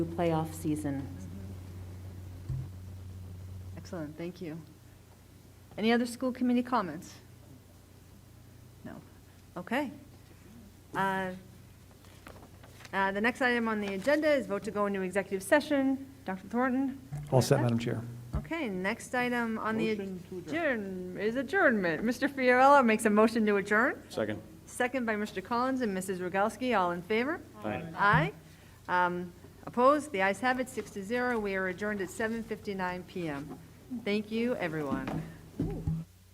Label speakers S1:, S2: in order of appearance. S1: playoff season.
S2: Excellent, thank you. Any other school committee comments? No. Okay. Uh, uh, The next item on the agenda is vote to go into executive session. Dr. Thornton?
S3: All set, Madam Chair.
S2: Okay, next item on the adjourn is adjournment. Mr. Fiorello makes a motion to adjourn,
S4: Second.
S2: second by Mr. Collins and Mrs. Rogalski, all in favor?
S4: Aye.
S2: Aye. Um, Opposed? The ayes have it, six to zero. We are adjourned at 7:59 PM. Thank you, everyone.